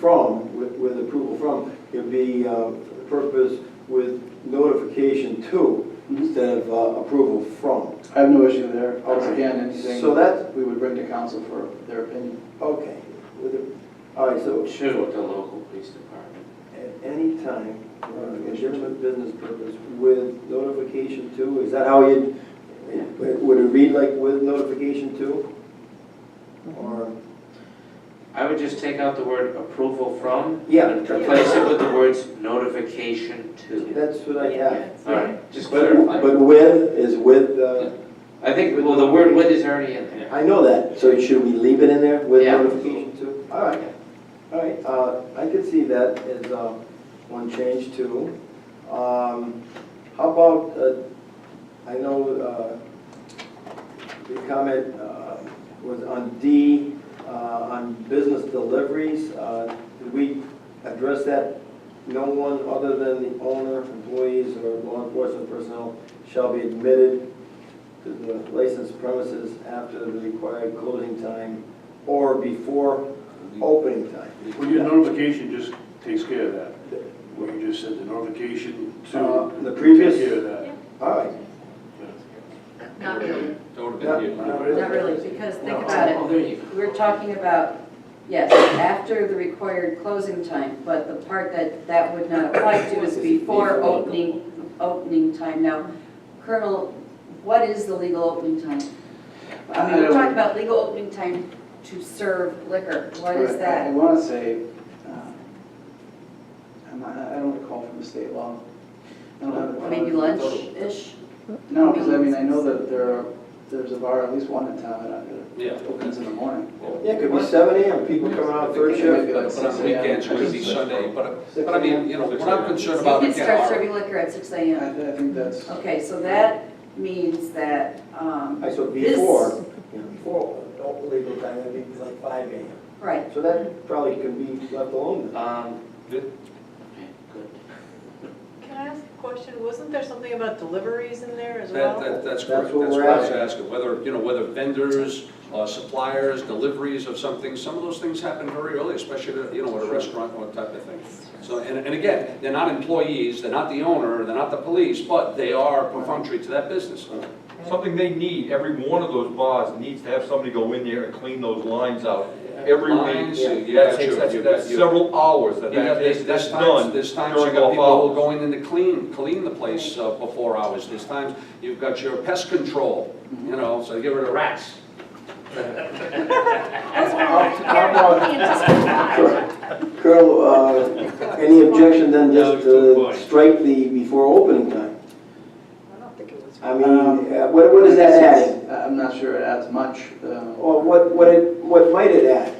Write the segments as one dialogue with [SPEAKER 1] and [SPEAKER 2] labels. [SPEAKER 1] from, with- with approval from, could be uh, purpose with notification to instead of uh, approval from.
[SPEAKER 2] I have no issue there. Again, anything
[SPEAKER 1] So that-
[SPEAKER 2] we would bring to council for their opinion.
[SPEAKER 1] Okay. With the- All right, so
[SPEAKER 3] Should with the local police department.
[SPEAKER 1] at any time, uh, legitimate business purpose with notification to, is that how you, would it read like with notification to? Or,
[SPEAKER 3] I would just take out the word approval from.
[SPEAKER 1] Yeah.
[SPEAKER 3] And replace it with the words notification to.
[SPEAKER 1] that's what I have.
[SPEAKER 3] All right, just
[SPEAKER 1] But
[SPEAKER 3] clarify.
[SPEAKER 1] but with is with, uh,
[SPEAKER 3] I think, well, the word with is already in there.
[SPEAKER 1] I know that, so should we leave it in there with
[SPEAKER 3] Yeah.
[SPEAKER 1] notification too? All right, all right, uh, I could see that as, uh, one change too. Um, how about, uh, I know, uh, the comment, uh, was on D, uh, on business deliveries, uh, did we address that? No one other than the owner, employees, or law enforcement personnel shall be admitted to the licensed premises after the required closing time or before opening time.
[SPEAKER 4] Well, your notification just takes care of that. What you just said, the notification
[SPEAKER 1] Uh,
[SPEAKER 4] to.
[SPEAKER 1] the previous-
[SPEAKER 4] Take care of that.
[SPEAKER 1] All right.
[SPEAKER 5] Not really, not
[SPEAKER 1] Not
[SPEAKER 5] really, because think
[SPEAKER 1] No.
[SPEAKER 5] about
[SPEAKER 3] Oh,
[SPEAKER 5] it.
[SPEAKER 3] there you go.
[SPEAKER 5] We're talking about, yes, after the required closing time, but the part that that would not apply to is before opening, opening time. Now, Colonel, what is the legal opening time? I mean, we're talking about legal opening time to serve liquor. What is
[SPEAKER 2] Right, I
[SPEAKER 5] that?
[SPEAKER 2] want to say, uh, I'm not- I don't recall from the state law. I don't have it.
[SPEAKER 5] Maybe lunch-ish?
[SPEAKER 2] No, because I mean, I know that there are, there's a bar, at least one in town that I-
[SPEAKER 6] Yeah.
[SPEAKER 2] that opens in the morning.
[SPEAKER 1] Yeah, it could be seven AM, people coming out third shift.
[SPEAKER 2] Maybe like
[SPEAKER 6] But
[SPEAKER 2] six
[SPEAKER 6] on
[SPEAKER 2] a.m.
[SPEAKER 6] weekends, it could be Sunday, but, but I mean, you know, what I'm
[SPEAKER 5] So
[SPEAKER 6] concerned
[SPEAKER 5] you
[SPEAKER 6] about,
[SPEAKER 5] can
[SPEAKER 6] again,
[SPEAKER 5] start
[SPEAKER 6] are-
[SPEAKER 5] serving liquor at 6
[SPEAKER 2] I
[SPEAKER 5] AM.
[SPEAKER 2] I think that's,
[SPEAKER 5] Okay, so that means that, um,
[SPEAKER 1] I said
[SPEAKER 5] This-
[SPEAKER 1] before, you know, before legal time, that'd be like five AM.
[SPEAKER 5] right,
[SPEAKER 1] So that probably could be left alone then.
[SPEAKER 3] Um,
[SPEAKER 6] Yeah.
[SPEAKER 3] good.
[SPEAKER 7] Can I ask a question? Wasn't there something about deliveries in there as
[SPEAKER 6] that,
[SPEAKER 7] well?
[SPEAKER 6] that, that's
[SPEAKER 1] That's
[SPEAKER 6] correct,
[SPEAKER 1] what
[SPEAKER 6] that's
[SPEAKER 1] we're
[SPEAKER 6] what I was
[SPEAKER 1] asking.
[SPEAKER 6] asking, whether, you know, whether vendors, uh, suppliers, deliveries of something, some of those things happen very early, especially, at a, you know, at a restaurant or type of thing. So, and, and again, they're not employees, they're not the owner, they're not the police, but they are perfunctory to that business.
[SPEAKER 8] Something they need, every one of those bars needs to have somebody go in there and clean those lines out every
[SPEAKER 6] Lines,
[SPEAKER 8] week.
[SPEAKER 6] you-
[SPEAKER 8] That
[SPEAKER 6] you got
[SPEAKER 8] takes-
[SPEAKER 6] your-
[SPEAKER 8] that's-
[SPEAKER 6] you got
[SPEAKER 8] That's
[SPEAKER 6] your-
[SPEAKER 8] several hours that
[SPEAKER 6] You got,
[SPEAKER 8] that
[SPEAKER 6] there's,
[SPEAKER 8] is
[SPEAKER 6] there's
[SPEAKER 8] done
[SPEAKER 6] times, there's times you
[SPEAKER 8] during
[SPEAKER 6] got
[SPEAKER 8] off
[SPEAKER 6] people who
[SPEAKER 8] hours.
[SPEAKER 6] go in and clean, clean the place uh, before hours, there's times you've got your pest control,
[SPEAKER 1] Mm-hmm.
[SPEAKER 6] you know, so get rid of rats.
[SPEAKER 1] Colonel, uh, any objection then just to strike the before opening time?
[SPEAKER 7] I don't think it was.
[SPEAKER 1] I mean,
[SPEAKER 2] Um,
[SPEAKER 1] uh, what, what is that adding?
[SPEAKER 2] I- I'm not sure it adds much. uh,
[SPEAKER 1] Or what, what it, what might it add?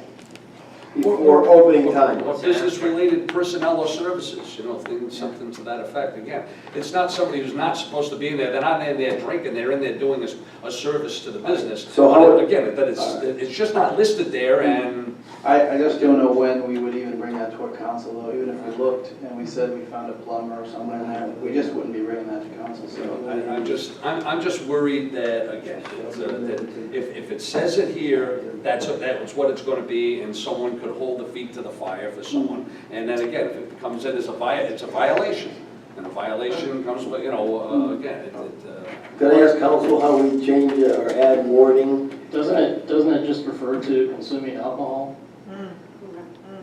[SPEAKER 1] Before opening time?
[SPEAKER 6] Or business-related personnel or services, you know, things, something to that effect. Again, it's not somebody who's not supposed to be in there, they're not in there drinking, they're in there doing a, s- a service to the business.
[SPEAKER 1] So how-
[SPEAKER 6] But Again, but it's, it's just not listed there and,
[SPEAKER 2] I, I just don't know when we would even bring that to our council, though, even if we looked and we said we found a plumber or something, we just wouldn't be bringing that to council,
[SPEAKER 1] Mm-hmm.
[SPEAKER 2] so.
[SPEAKER 6] I- I'm just, I'm, I'm just worried that, again, it's, uh, that if, if it says it here, that's, that's what it's gonna be, and someone could hold the feet to the fire for someone. And then again, if it comes in as a vi, it's a violation, and a violation comes, with, you know, uh, again, it, it, uh,
[SPEAKER 1] Could I ask council how we change it or add warning?
[SPEAKER 9] Doesn't it, doesn't it just refer to consuming alcohol?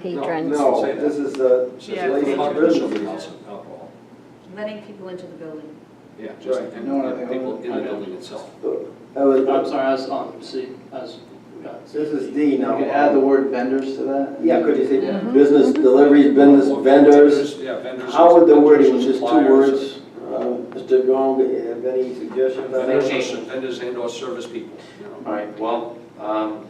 [SPEAKER 6] patrons.
[SPEAKER 1] No, this is uh, this is
[SPEAKER 7] Yeah.
[SPEAKER 1] licensed business.
[SPEAKER 6] Alcohol.
[SPEAKER 5] letting people into the building.
[SPEAKER 6] Yeah, just, and
[SPEAKER 2] No, no, no.
[SPEAKER 6] people in the building itself.
[SPEAKER 1] That was-
[SPEAKER 9] I'm sorry, I was on, see, I was, got-
[SPEAKER 1] This is D
[SPEAKER 2] You
[SPEAKER 1] now.
[SPEAKER 2] could add the word vendors to that.
[SPEAKER 1] Yeah, could you say business deliveries, business
[SPEAKER 6] Or
[SPEAKER 1] vendors?
[SPEAKER 6] Yeah, vendors.
[SPEAKER 1] How would the
[SPEAKER 6] vendors or
[SPEAKER 1] wording, just two
[SPEAKER 6] suppliers.
[SPEAKER 1] words, uh, Mr. Gong, have any suggestions? on
[SPEAKER 6] Vendors
[SPEAKER 1] that?
[SPEAKER 6] or, ser- vendors and or service people, you know.
[SPEAKER 3] All right, well, um,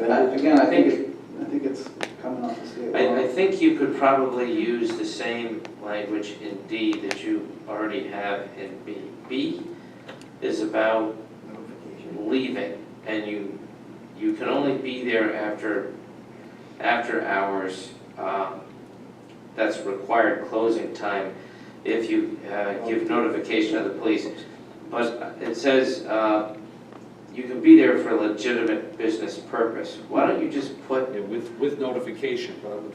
[SPEAKER 2] Uh,
[SPEAKER 1] Vendors?
[SPEAKER 2] Again, I think, it- I think it's coming off the state
[SPEAKER 3] I, I
[SPEAKER 2] law.
[SPEAKER 3] think you could probably use the same language in D that you already have in B. B is about leaving, and you, you can only be there after, after hours. um, That's required closing time if you uh, give notification of the police. But it says, uh, you can be there for a legitimate business purpose. Why don't you just put
[SPEAKER 6] Yeah, With, with notification, but I would